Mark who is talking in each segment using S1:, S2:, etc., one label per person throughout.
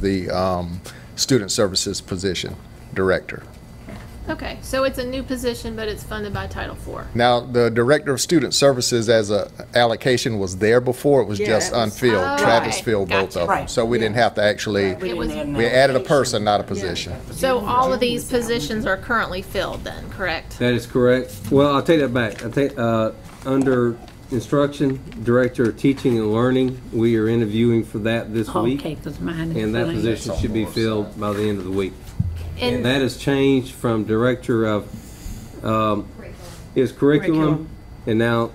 S1: the um, Student Services position Director.
S2: Okay, so it's a new position, but it's funded by Title IV.
S1: Now, the Director of Student Services as a allocation was there before, it was
S3: Yeah,
S1: just
S3: it was-
S2: Oh,
S1: unfilled. Travis
S2: right.
S1: filled both
S2: Gotcha.
S1: of them.
S3: Right,
S1: So we didn't have to actually,
S3: We
S2: It
S3: didn't
S2: was-
S3: add an
S1: we added a
S3: allocation.
S1: person, not a position.
S2: So all of these positions are currently filled then, correct?
S4: That is correct. Well, I'll take that back. I take, uh, under instruction, director of teaching and learning, we are interviewing for that this week.
S5: Okay, because mine is.
S4: And that
S5: blank.
S4: position should be filled by the end of the week. And
S2: And,
S4: that has changed from director of, um, is curriculum,
S5: Curriculum.
S4: and now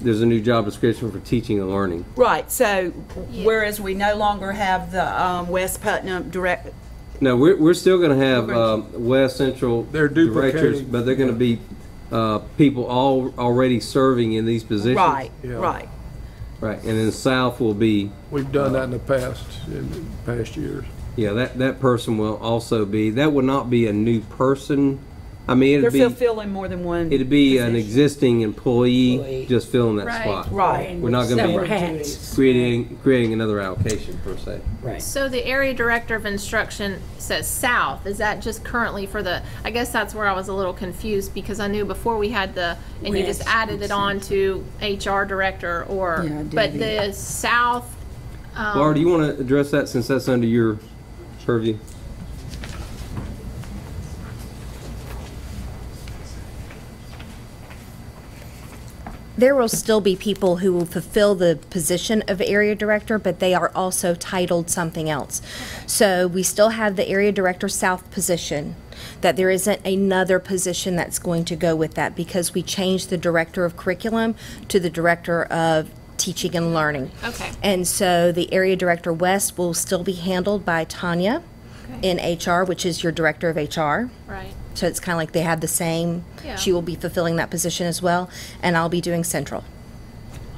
S4: there's a new job description for teaching and learning.
S3: Right, so whereas we no longer have the um, West Putnam direct,
S4: No, we're, we're still gonna have, um, West Central.
S6: They're
S4: directors,
S6: duplicating.
S4: But they're gonna be, uh, people all, already serving in these positions.
S3: right,
S6: Yeah.
S3: right.
S4: Right, and then South will be,
S6: We've done that in the past, in past years.
S4: yeah, that, that person will also be, that would not be a new person. I mean,
S3: They're
S4: it'd
S3: fill-
S4: be,
S3: filling more than one.
S4: it'd be an
S3: position.
S4: existing employee
S5: Employee.
S4: just filling
S2: Right.
S4: that spot.
S3: Right,
S4: We're not gonna
S5: Separate
S4: be
S5: hats.
S4: creating, creating another allocation per se.
S5: Right.
S2: so the area director of instruction says south, is that just currently for the, I guess that's where I was a little confused because I knew before we had the, and you just
S5: West
S2: added it on to HR director or,
S5: Yeah, I did
S2: but
S5: that.
S2: the south,
S3: Um,
S4: Laura, do you wanna address that since that's under your purview?
S7: There will still be people who will fulfill the position of area director, but they are also titled something else. So we still have the area director south position, that there isn't another position that's going to go with that because we changed the director of curriculum to the director of teaching and learning.
S2: Okay.
S7: And so the area director west will still be handled by Tanya in HR, which is your director of HR.
S2: right?
S7: So it's kind of like they have the same,
S2: Yeah.
S7: she will be fulfilling that position as well, and I'll be doing central.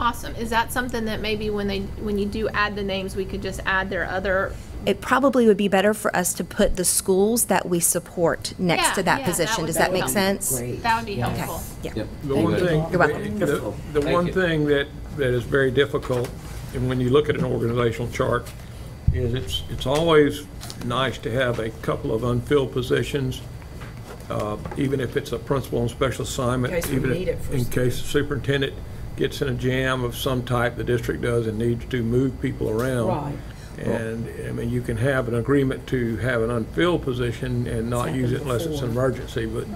S2: Awesome. Is that something that maybe when they, when you do add the names, we could just add their other?
S7: It probably would be better for us to put the schools that we support next to
S2: Yeah, yeah,
S7: that
S2: that
S7: position.
S2: would
S7: Does that
S2: be
S7: make sense?
S5: Great.
S2: That would be helpful.
S4: Yep.
S6: The one thing,
S7: You're welcome.
S6: the, the one thing that, that is very difficult, and when you look at an organizational chart, is it's, it's always nice to have a couple of unfilled positions, uh, even if it's a principal and special assignment.
S3: In case we
S6: even if-
S3: need it for-
S6: In case the superintendent gets in a jam of some type, the district does, and needs to move people around.
S3: Right.
S6: And, I mean, you can have an agreement to have an unfilled position and not use it unless it's an emergency, but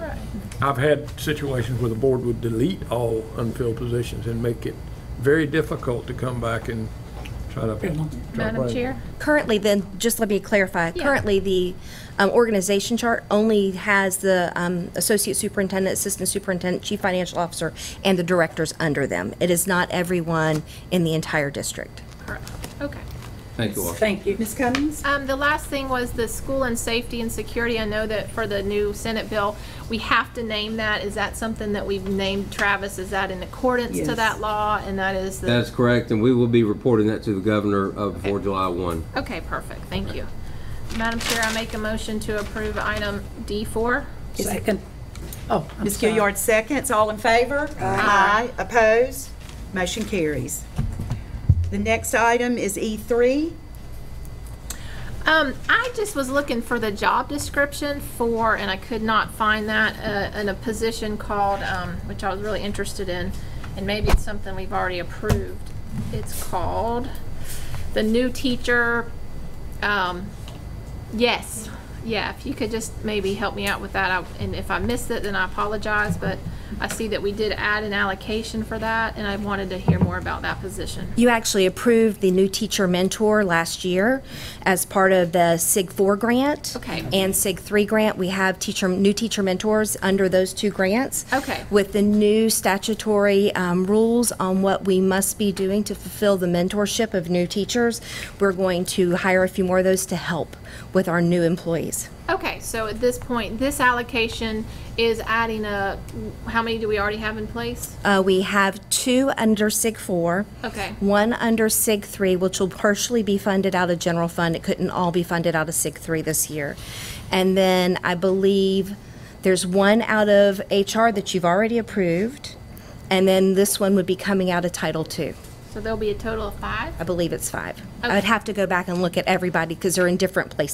S6: I've had situations where the board would delete all unfilled positions and make it very difficult to come back and try to. try to
S2: Madam
S6: break.
S2: Chair?
S7: Currently, then, just let me clarify, currently, the um, organization chart only has the um, associate superintendent, assistant superintendent, chief financial officer, and the directors under them. It is not everyone in the entire district.
S2: Correct. Okay.
S4: Thank you, Laura.
S5: Thank you.
S3: Ms. Cummings?
S2: Um, the last thing was the school and safety and security. I know that for the new Senate bill, we have to name that. Is that something that we've named Travis? Is that in accordance to
S3: Yes.
S2: that law? And that is the?
S4: That is correct, and we will be reporting that to the governor uh, before July 1.
S2: Okay, perfect. Thank you. Madam Chair, I make a motion to approve item D4.
S5: Second. Oh, I'm
S3: Ms.
S5: sorry.
S3: Gilliard seconds, all in favor? Aye. Opposed? Motion carries. The next item is E E3.
S2: Um, I just was looking for the job description for, and I could not find that, uh, in a position called, um, which I was really interested in, and maybe it's something we've already approved. It's called the new teacher, um, yes, yeah, if you could just maybe help me out with that, I- and if I missed it, then I apologize, but I see that we did add an allocation for that, and I wanted to hear more about that position.
S7: You actually approved the new teacher mentor last year as part of the SIG 4 grant.
S2: Okay.
S7: And SIG 3 grant. We have teacher, new teacher mentors under those two grants.
S2: Okay.
S7: With the new statutory um, rules on what we must be doing to fulfill the mentorship of new teachers, we're going to hire a few more of those to help with our new employees.
S2: Okay, so at this point, this allocation is adding a, how many do we already have in place?
S7: Uh, We have two under SIG 4.
S2: Okay.
S7: One under SIG 3, which will partially be funded out of general fund. It couldn't all be funded out of SIG 3 this year. And then I believe there's one out of HR that you've already approved, and then this one would be coming out of Title 2.
S2: So there'll be a total of five?
S7: I believe it's five.
S2: Okay.
S7: I'd have to go back and look at everybody because they're in different places.